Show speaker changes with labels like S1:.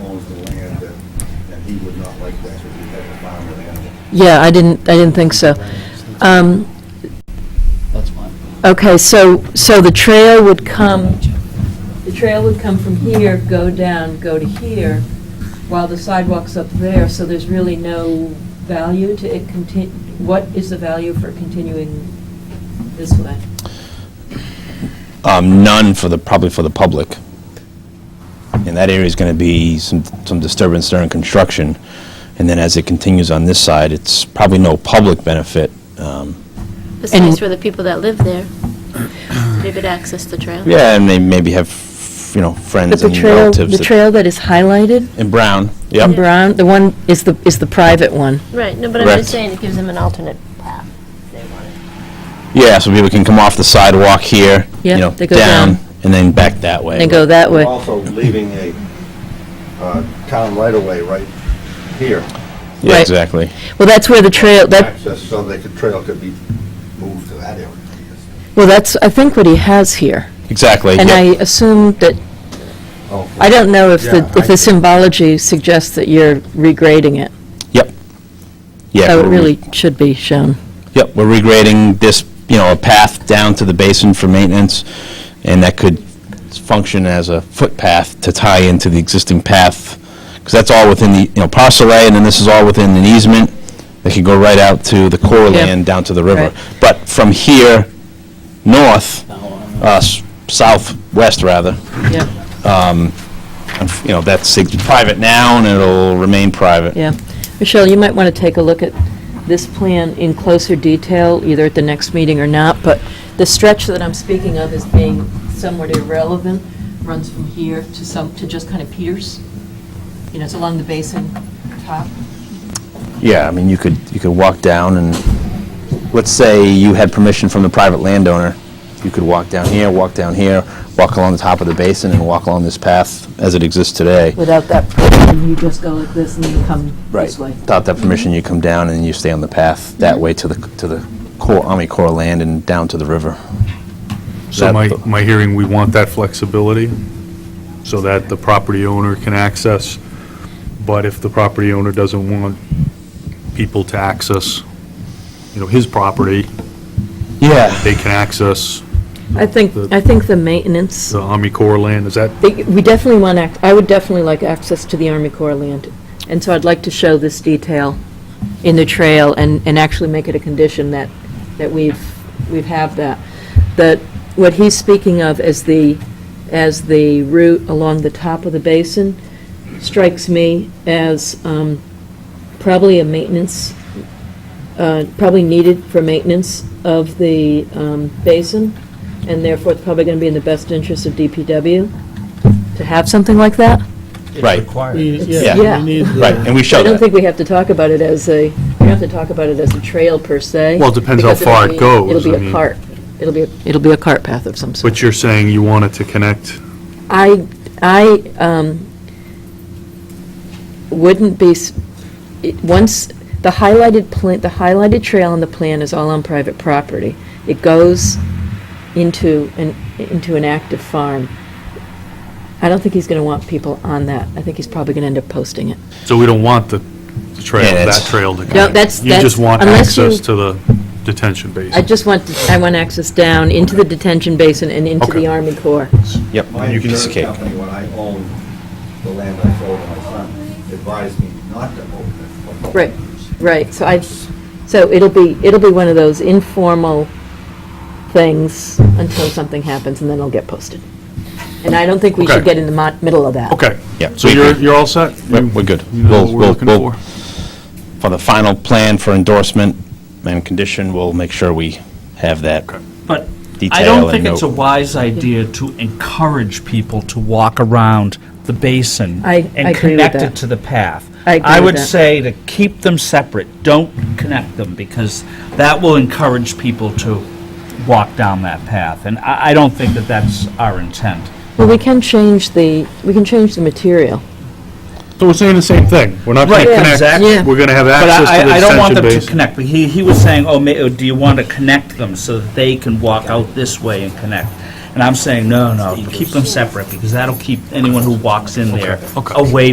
S1: owns the land, and, and he would not like that, if he had a farm with animals.
S2: Yeah, I didn't, I didn't think so. Um,
S3: That's fine.
S2: Okay, so, so the trail would come, the trail would come from here, go down, go to here, while the sidewalk's up there, so there's really no value to it contin, what is the value for continuing this way?
S4: Um, None for the, probably for the public. And that area's going to be some some disturbance during construction. And then as it continues on this side, it's probably no public benefit. Um,
S5: Besides for the people that live there, they could access the trail.
S4: Yeah, and they maybe have, you know,
S2: But
S4: friends
S2: the
S4: and
S2: trail,
S4: relatives.
S2: the
S4: that-
S2: trail that is highlighted
S4: In Brown,
S2: in
S4: yep.
S2: brown, the one is the, is the private one.
S5: Right, no, but I'm
S4: Correct.
S5: just saying, it gives them an alternate path if they want it.
S4: Yeah, so people can come off the sidewalk here, you
S2: Yeah,
S4: know,
S2: they go
S4: down,
S2: down.
S4: and then back that way.
S2: They go that
S1: We're
S2: way.
S1: Also leaving a, uh, town right-of-way right here,
S4: Yeah,
S2: Right.
S4: exactly.
S2: Well, that's where the trail, that,
S1: access, so that the trail could be moved to that area.
S2: well, that's, I think what he has here.
S4: Exactly.
S2: And
S4: yep.
S2: I assume that
S1: Okay.
S2: I don't know if the,
S1: Yeah,
S2: if the
S1: I-
S2: symbology suggests that you're regrading it,
S4: Yep. Yeah,
S2: so it
S4: we're re-
S2: really should be shown.
S4: Yep, we're regrading this, you know, a path down to the basin for maintenance, and that could function as a footpath to tie into the existing path, because that's all within the, you know, parcel A, and then this is all within an easement that could go right out to the core
S2: Yeah.
S4: land, down to the
S2: Right.
S4: river. But from here, north,
S3: Now, um,
S4: uh, s- southwest, rather, um,
S2: Yeah,
S4: and, you know, that's it's private now, and it'll remain private.
S2: yeah. Michelle, you might want to take a look at this plan in closer detail, either at the next meeting or not, but the stretch that I'm speaking of as being somewhat irrelevant runs from here to some, to just kind of Peters. You know, it's along the basin top.
S4: Yeah, I mean, you could, you could walk down and, let's say you had permission from the private landowner, you could walk down here, walk down here, walk along the top of the basin and walk along this path as it exists today.
S2: Without that, plan, you just go like this and you come
S4: Right.
S2: this way.
S4: Without that permission, you come down and you stay on the path that way to the, to the core, Army Corps land and down to the river.
S6: So
S4: That-
S6: my, my hearing, we want that flexibility, so that the property owner can access, but if the property owner doesn't want people to access, you know, his property,
S4: Yeah.
S6: they can access
S2: I think,
S6: The-
S2: I think the maintenance
S6: the Army Corps land, is that,
S2: They- We definitely want, act- I would definitely like access to the Army Corps land, and so I'd like to show this detail in the trail and, and actually make it a condition that, that we've, we've have that. That, what he's speaking of as the, as the route along the top of the basin strikes me as um, probably a maintenance, uh, probably needed for maintenance of the um, basin, and therefore it's probably going to be in the best interest of DPW to have something like that.
S4: Right,
S7: We-
S2: Yeah.
S7: Yeah, we need the-
S4: right, and we
S2: I
S4: show
S2: don't
S4: that.
S2: think we have to talk about it as a, we have to talk about it as a trail per se.
S6: Well, it depends how
S2: because it'll
S6: far it
S2: be-
S6: goes, I
S2: It'll be a
S6: mean.
S2: cart, it'll be, a- it'll be a cart path of some sort.
S6: but you're saying you want it to connect,
S2: I, I um, wouldn't be, s- it- once, the highlighted plan, the highlighted trail on the plan is all on private property. It goes into an, into an active farm. I don't think he's going to want people on that. I think he's probably going to end up posting it.
S6: so we don't want the the trail,
S4: Yeah,
S6: that
S4: that's-
S6: trail to connect?
S2: that's-
S6: You just
S2: that's-
S6: want
S2: unless you-
S6: access to the detention basin?
S2: I just want, I want access down into the detention basin and into the
S6: Okay.
S2: Army Corps.
S4: Yep,
S1: My
S4: you can
S1: insurance
S4: escape.
S1: company, when I owned the land I sold to my son, advised me not to own it.
S2: Right, right, so I, so it'll be, it'll be one of those informal things until something happens, and then it'll get posted. And I don't think we should
S6: Okay.
S2: get in the mo- middle of that.
S6: Okay.
S4: Yeah,
S6: So
S4: we
S6: you're,
S4: agree.
S6: you're all set?
S4: We're- we're good.
S6: You know
S4: We'll-
S6: what we're
S4: we'll-
S6: looking
S4: we'll-
S6: for?
S4: For the final plan for endorsement and condition, we'll make sure we have that
S8: But I
S4: detail
S8: don't
S4: and
S8: think it's a
S4: note.
S8: wise idea to encourage people to walk around the basin
S2: I- I
S8: and
S2: agree with
S8: connect
S2: that.
S8: it to the path.
S2: I agree
S8: I
S2: with
S8: would
S2: that.
S8: say to keep them separate, don't connect them, because that will encourage people to walk down that path. And I, I don't think that that's our intent.
S2: Well, we can change the, we can change the material.
S6: So we're saying the same thing. We're not going
S8: Right,
S6: to
S8: yeah,
S2: exactly.
S6: connect, we're going to have
S8: But
S6: access
S8: I,
S6: to the
S8: I- I don't
S6: detention
S8: want them to
S6: basin.
S8: connect, but he, he was saying, oh, ma- do you want to connect them so that they can walk out this way and connect? And I'm saying, no, no, keep them separate, because that'll keep anyone who walks in there away